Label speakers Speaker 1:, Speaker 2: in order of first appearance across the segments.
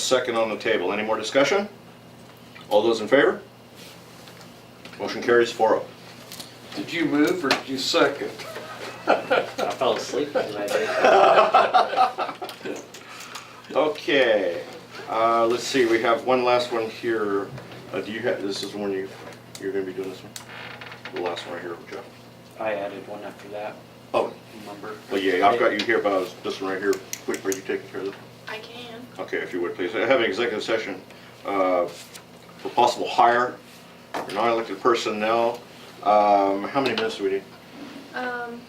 Speaker 1: second on the table. Any more discussion? All those in favor? Motion carries four oh.
Speaker 2: Did you move or did you second?
Speaker 3: I fell asleep when I did.
Speaker 1: Okay, uh, let's see, we have one last one here. Uh, do you have, this is the one you, you're gonna be doing this one? The last one right here, Jeff.
Speaker 3: I added one after that,
Speaker 1: Oh,
Speaker 3: remember?
Speaker 1: well, yeah, I've got you here, but I was, this one right here, quick, are you taking care of this?
Speaker 4: I can.
Speaker 1: Okay, if you would, please. I have an executive session uh, for possible hire for non-elected personnel. Um, How many minutes do we need?
Speaker 4: Um,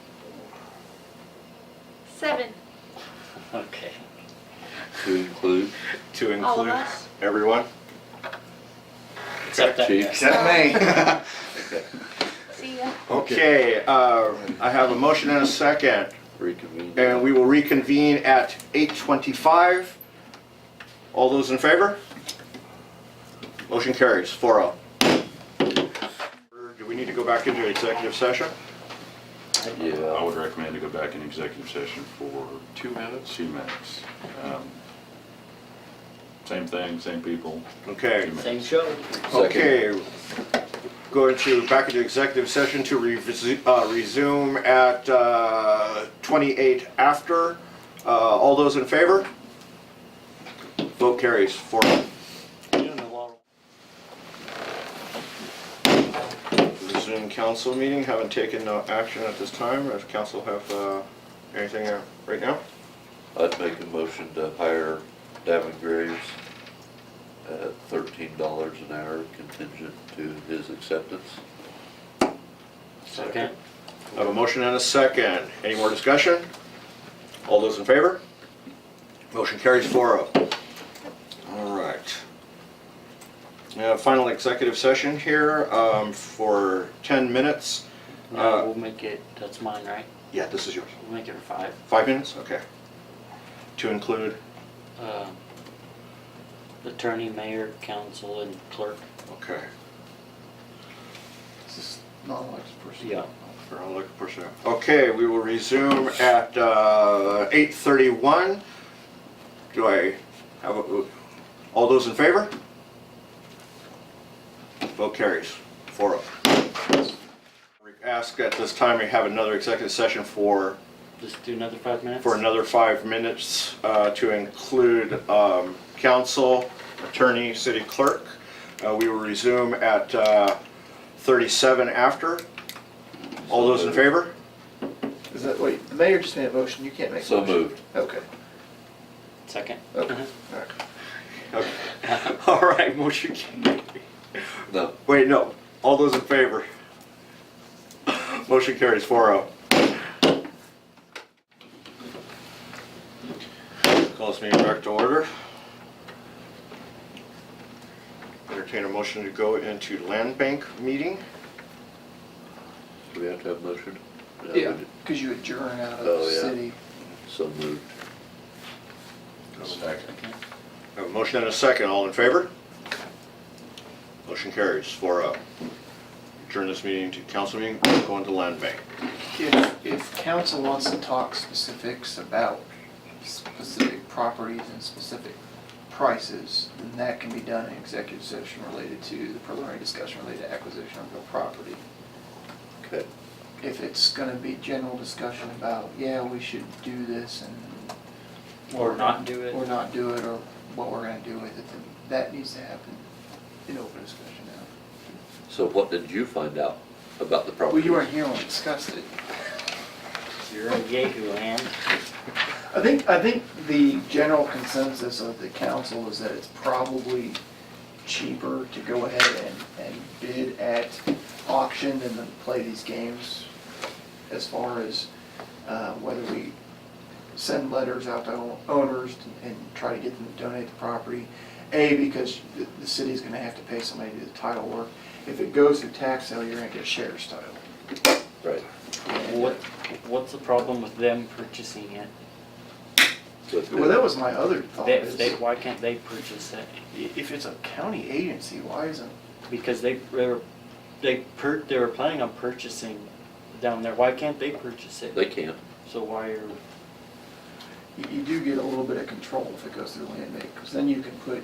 Speaker 4: seven.
Speaker 3: Okay.
Speaker 5: to include
Speaker 1: To
Speaker 4: All of
Speaker 1: include
Speaker 4: us?
Speaker 1: everyone?
Speaker 3: Except that,
Speaker 5: Chiefs.
Speaker 2: Except me.
Speaker 4: See ya.
Speaker 1: Okay, uh, I have a motion and a second,
Speaker 5: reconvene.
Speaker 1: and we will reconvene at 8:25. All those in favor? Motion carries, 4-0. Do we need to go back into executive session?
Speaker 6: I
Speaker 5: Yeah,
Speaker 6: Uh, would recommend to go back in executive session for
Speaker 2: Two minutes.
Speaker 6: CMAX. Um, Same thing, same people.
Speaker 1: Okay.
Speaker 6: two
Speaker 3: same
Speaker 6: minutes.
Speaker 3: show.
Speaker 1: Okay, going to, back into executive session to revisit- uh, resume at uh, 28 after. Uh, All those in favor? Vote carries, four. oh. Resume council meeting, haven't taken no action at this time. Does council have uh, anything uh, right now?
Speaker 5: I'd make a motion to hire Davin Graves at thirteen dollars an hour contingent to his acceptance.
Speaker 3: Second.
Speaker 1: I have a motion and a second. Any more discussion? All those in favor? Motion carries 4-0. All right. Now, final executive session here um, for 10 minutes. Uh,
Speaker 3: No, we'll make it, that's mine, right?
Speaker 1: Yeah, this is yours.
Speaker 3: We'll make it five.
Speaker 1: Five minutes? Okay. To include,
Speaker 3: Uh, Attorney, mayor, council, and clerk.
Speaker 1: okay,
Speaker 2: This is not elected person.
Speaker 3: Yeah.
Speaker 1: for all the personnel. Okay, we will resume at uh, 8:31. Do I have, a- all those in favor? Vote carries, four oh. Ask at this time, we have another executive session for,
Speaker 3: Just do another five minutes?
Speaker 1: for another five minutes uh, to include um, council, attorney, city clerk. Uh, We will resume at uh, 37 after. All those in favor?
Speaker 7: Is that, wait, the mayor just made a motion, you can't make a
Speaker 5: So
Speaker 7: motion?
Speaker 5: moved.
Speaker 7: Okay,
Speaker 3: Second.
Speaker 1: Oh.
Speaker 3: Uh-huh.
Speaker 7: okay, all right.
Speaker 1: Okay. All right, motion carries.
Speaker 5: No,
Speaker 1: Wait, no. All those in favor? Motion carries oh. 4-0. Call this meeting back to order. Entertain a motion to go into land bank meeting.
Speaker 5: do we have to have a motion? No, we
Speaker 7: Yeah,
Speaker 5: didn't.
Speaker 7: because you adjourn out of
Speaker 5: Oh,
Speaker 7: the
Speaker 5: yeah.
Speaker 7: city.
Speaker 5: So moved.
Speaker 6: Second.
Speaker 1: Have a motion and a second. All in favor? Motion carries 4-0. Turn this meeting to council meeting, go into land bank.
Speaker 7: If, if council wants to talk specifics about specific properties and specific prices, then that can be done in executive session related to the preliminary discussion related to acquisition of real property.
Speaker 5: Okay,
Speaker 7: If it's gonna be general discussion about, yeah, we should do this and
Speaker 3: Or not do it.
Speaker 7: or not do it, or what we're gonna do with it, then that needs to happen in open discussion now.
Speaker 5: so what did you find out about the
Speaker 7: Well,
Speaker 5: property?
Speaker 7: you weren't here when we discussed it.
Speaker 3: You're in Yahoo land.
Speaker 7: I think, I think the general consensus of the council is that it's probably cheaper to go ahead and, and bid at auction than to play these games as far as, uh, whether we send letters out to o- owners and try to get them to donate the property. A, because the, the city's gonna have to pay somebody to do the title work. If it goes through tax sale, you're gonna get sheriff's title.
Speaker 5: Right,
Speaker 3: What, what's the problem with them purchasing it?
Speaker 5: but-
Speaker 7: Well, that was my other thought
Speaker 3: They, they,
Speaker 7: is,
Speaker 3: why can't they purchase it?
Speaker 7: if it's a county agency, why isn't
Speaker 3: Because they, they were, they per, they were planning on purchasing down there, why can't they purchase it?
Speaker 5: They can't.
Speaker 3: So why are,
Speaker 7: you, you do get a little bit of control if it goes through land bank, because then you can put